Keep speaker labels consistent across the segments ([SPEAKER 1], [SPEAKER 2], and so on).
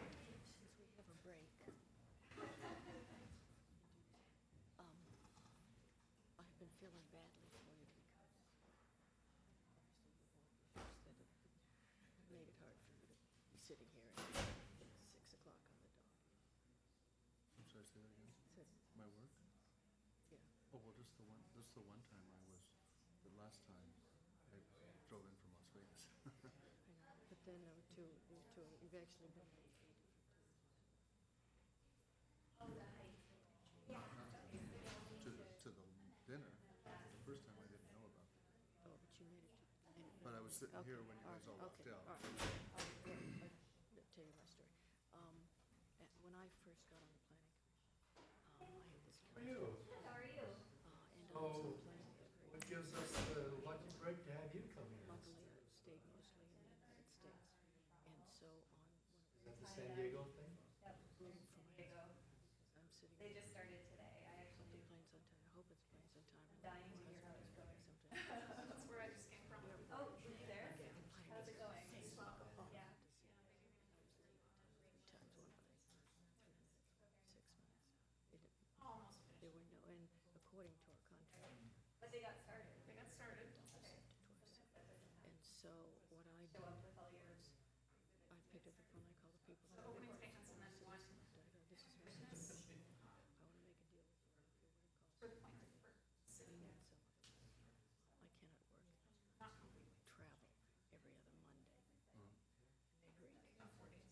[SPEAKER 1] um, um,
[SPEAKER 2] work?
[SPEAKER 1] Yeah.
[SPEAKER 2] Oh, well, just the one, just the one time I was, the last time I drove in from Las Vegas.
[SPEAKER 1] But then I would to, to eventually, but
[SPEAKER 2] To, to the dinner, the first time I didn't know about it.
[SPEAKER 1] oh, but you made it. to- anyway.
[SPEAKER 2] But I was sitting here when you
[SPEAKER 1] Okay,
[SPEAKER 2] guys all
[SPEAKER 1] alright,
[SPEAKER 2] walked
[SPEAKER 1] okay,
[SPEAKER 2] out.
[SPEAKER 1] alright, alright, alright, I'll Tell you my story. Um, uh, when I first got on the planning, commission, um, I had this.
[SPEAKER 3] How are you?
[SPEAKER 4] How are you?
[SPEAKER 1] Uh, and I was on planning.
[SPEAKER 3] Oh,
[SPEAKER 1] every-
[SPEAKER 3] What gives us the lucky break to have you come here?
[SPEAKER 1] Luckily, I stayed mostly in the United States. And so on, one
[SPEAKER 3] Is that the San Diego thing?
[SPEAKER 4] Yep,
[SPEAKER 1] Room
[SPEAKER 4] there's
[SPEAKER 1] for
[SPEAKER 4] San
[SPEAKER 1] my-
[SPEAKER 4] Diego.
[SPEAKER 1] of- I'm sitting.
[SPEAKER 4] They just started today. I
[SPEAKER 1] Hope
[SPEAKER 4] actually,
[SPEAKER 1] it planes on time. I hope it's planes on time.
[SPEAKER 4] Dying to
[SPEAKER 1] We're
[SPEAKER 4] hear how it's going.
[SPEAKER 1] Something.
[SPEAKER 5] That's where I just came from.
[SPEAKER 4] oh, were you there? How's it going? Yeah.
[SPEAKER 1] Times one by three minutes, six minutes. It-
[SPEAKER 5] Almost finished.
[SPEAKER 1] There were no, and according to our contract,
[SPEAKER 4] But they got started.
[SPEAKER 5] They got started.
[SPEAKER 4] Okay.
[SPEAKER 1] to our side. and so what I
[SPEAKER 4] Show
[SPEAKER 1] did,
[SPEAKER 4] up with all yours.
[SPEAKER 1] I picked up the phone, I called the people.
[SPEAKER 5] So opening statements and then one
[SPEAKER 1] I go, This is my
[SPEAKER 5] business
[SPEAKER 1] situation. I want to make a deal with you. I don't care what it costs. We
[SPEAKER 5] for the point that we're sitting
[SPEAKER 1] need
[SPEAKER 5] at.
[SPEAKER 1] someone. I cannot work,
[SPEAKER 5] Not completely.
[SPEAKER 1] travel every other Monday, Greek.
[SPEAKER 5] About four days.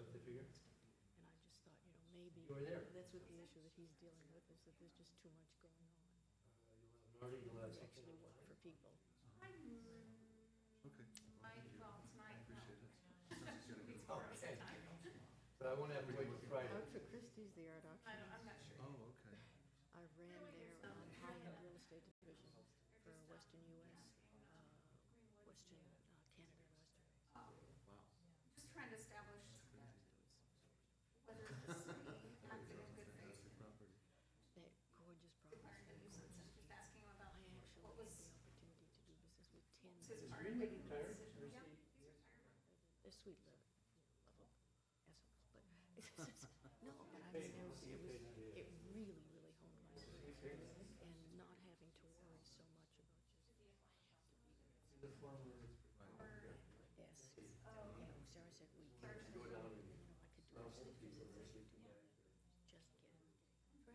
[SPEAKER 3] Up the figure?
[SPEAKER 1] And I just thought, you know, maybe.
[SPEAKER 3] You were there.
[SPEAKER 1] That's what the issue that he's dealing with, is that there's just too much going on.
[SPEAKER 3] Uh, You'll have Nordy, you'll have
[SPEAKER 1] to Actually
[SPEAKER 3] something.
[SPEAKER 1] work for people.
[SPEAKER 5] I,
[SPEAKER 2] Okay. well, thank you.
[SPEAKER 5] my, well, tonight, no.
[SPEAKER 2] Appreciate it. Since it's gonna be-
[SPEAKER 5] Tomorrow sometime.
[SPEAKER 3] But I won't have to wait till Friday.
[SPEAKER 1] Art for Christie's, the art
[SPEAKER 5] I
[SPEAKER 1] auction.
[SPEAKER 5] don't, I'm not sure.
[SPEAKER 2] Oh, okay.
[SPEAKER 1] I ran there on high-end real estate division for Western US, uh, Western, uh, Canada, and Western.
[SPEAKER 2] Wow.
[SPEAKER 5] Just trying to establish whether the city acted in good faith
[SPEAKER 2] Fantastic property.
[SPEAKER 1] That gorgeous property.
[SPEAKER 5] and declared a nuisance and just asking him about
[SPEAKER 1] I actually had the opportunity
[SPEAKER 5] what was
[SPEAKER 1] to do business with ten,
[SPEAKER 5] his part.
[SPEAKER 3] Greenwood retired? Or is
[SPEAKER 1] they're
[SPEAKER 3] he-
[SPEAKER 5] Yeah, he's retired.
[SPEAKER 1] sweet level, level essence, but, no, but I mean, it was, it was, it really, really honed my skills. And not having to worry so much about just,
[SPEAKER 3] The former.
[SPEAKER 5] Or-
[SPEAKER 1] yes, you
[SPEAKER 5] Oh, yeah.
[SPEAKER 1] know, Sarah said we can,
[SPEAKER 5] First,
[SPEAKER 3] Go down
[SPEAKER 1] you know,
[SPEAKER 3] and.
[SPEAKER 1] I could do it, so
[SPEAKER 3] Well, we'll be
[SPEAKER 1] because it's-
[SPEAKER 3] reversing to that.
[SPEAKER 1] just get traffic, things didn't come.
[SPEAKER 5] Yeah.
[SPEAKER 1] And I, I just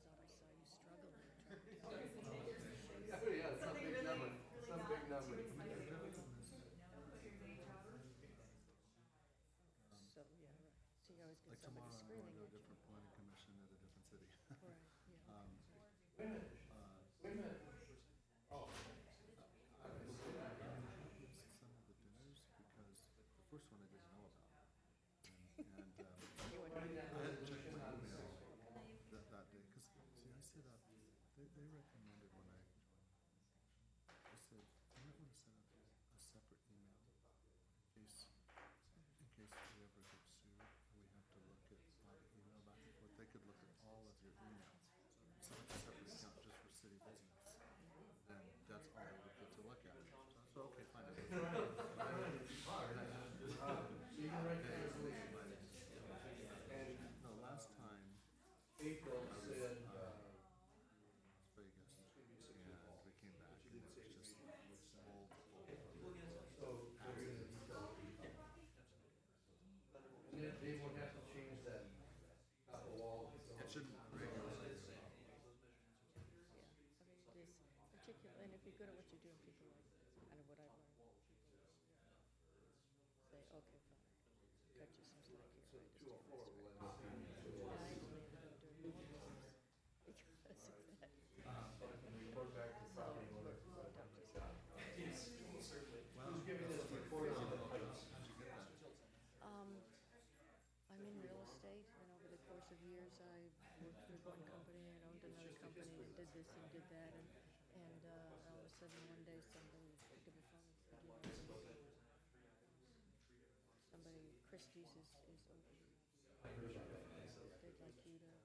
[SPEAKER 1] thought I saw you struggle and try to
[SPEAKER 3] Oh, yeah, some
[SPEAKER 4] Something really,
[SPEAKER 3] big number,
[SPEAKER 4] really
[SPEAKER 3] some big
[SPEAKER 4] not too
[SPEAKER 3] number.
[SPEAKER 4] exciting.
[SPEAKER 1] So, yeah, right. So you always get
[SPEAKER 2] Like tomorrow,
[SPEAKER 1] somebody
[SPEAKER 2] I'm going
[SPEAKER 1] screaming
[SPEAKER 2] to a
[SPEAKER 1] at you.
[SPEAKER 2] different planning commission at a different city.
[SPEAKER 1] Right, yeah.
[SPEAKER 2] Um,
[SPEAKER 3] Wait a minute,
[SPEAKER 2] uh,
[SPEAKER 3] wait a minute. Oh,
[SPEAKER 2] I was looking at some of the dinners because the first one I didn't know about. And, and, um,
[SPEAKER 3] writing that
[SPEAKER 2] I had to check
[SPEAKER 3] resolution
[SPEAKER 2] my
[SPEAKER 3] on
[SPEAKER 2] email that, that day, because, see, I set up, they, they recommended when I joined, I said, you might want to set up a separate email in case, in case we ever get sued, we have to look at all the email back and forth, they could look at all of your emails. So like a separate account just for city business, then that's all they would get to look at. So, okay, fine. I did.
[SPEAKER 3] Uh, So you can write that resolution. And
[SPEAKER 2] No, last time,
[SPEAKER 3] April said, uh,
[SPEAKER 2] Vegas, and we came back and it was just old, old.
[SPEAKER 3] So they're gonna be done. And then they won't have to change that top wall.
[SPEAKER 2] It shouldn't regularly.
[SPEAKER 1] Yeah, I mean, this particular, and if you're good at what you're doing, people like, kind of what I learned. Say, okay, fine, cut you some slack here, I understand this, right? And I actually ended up doing more business because of that.
[SPEAKER 3] Report back to property owner.
[SPEAKER 2] Wow.
[SPEAKER 3] Who's giving this report on the heights?
[SPEAKER 1] Um, I'm in real estate, and over the course of years, I worked with one company and owned another company, and did this and did that, and, and, uh, all of a sudden, one day, somebody picked up a phone and said, "You know, Somebody, Christie's is, is open. They'd like you to uh,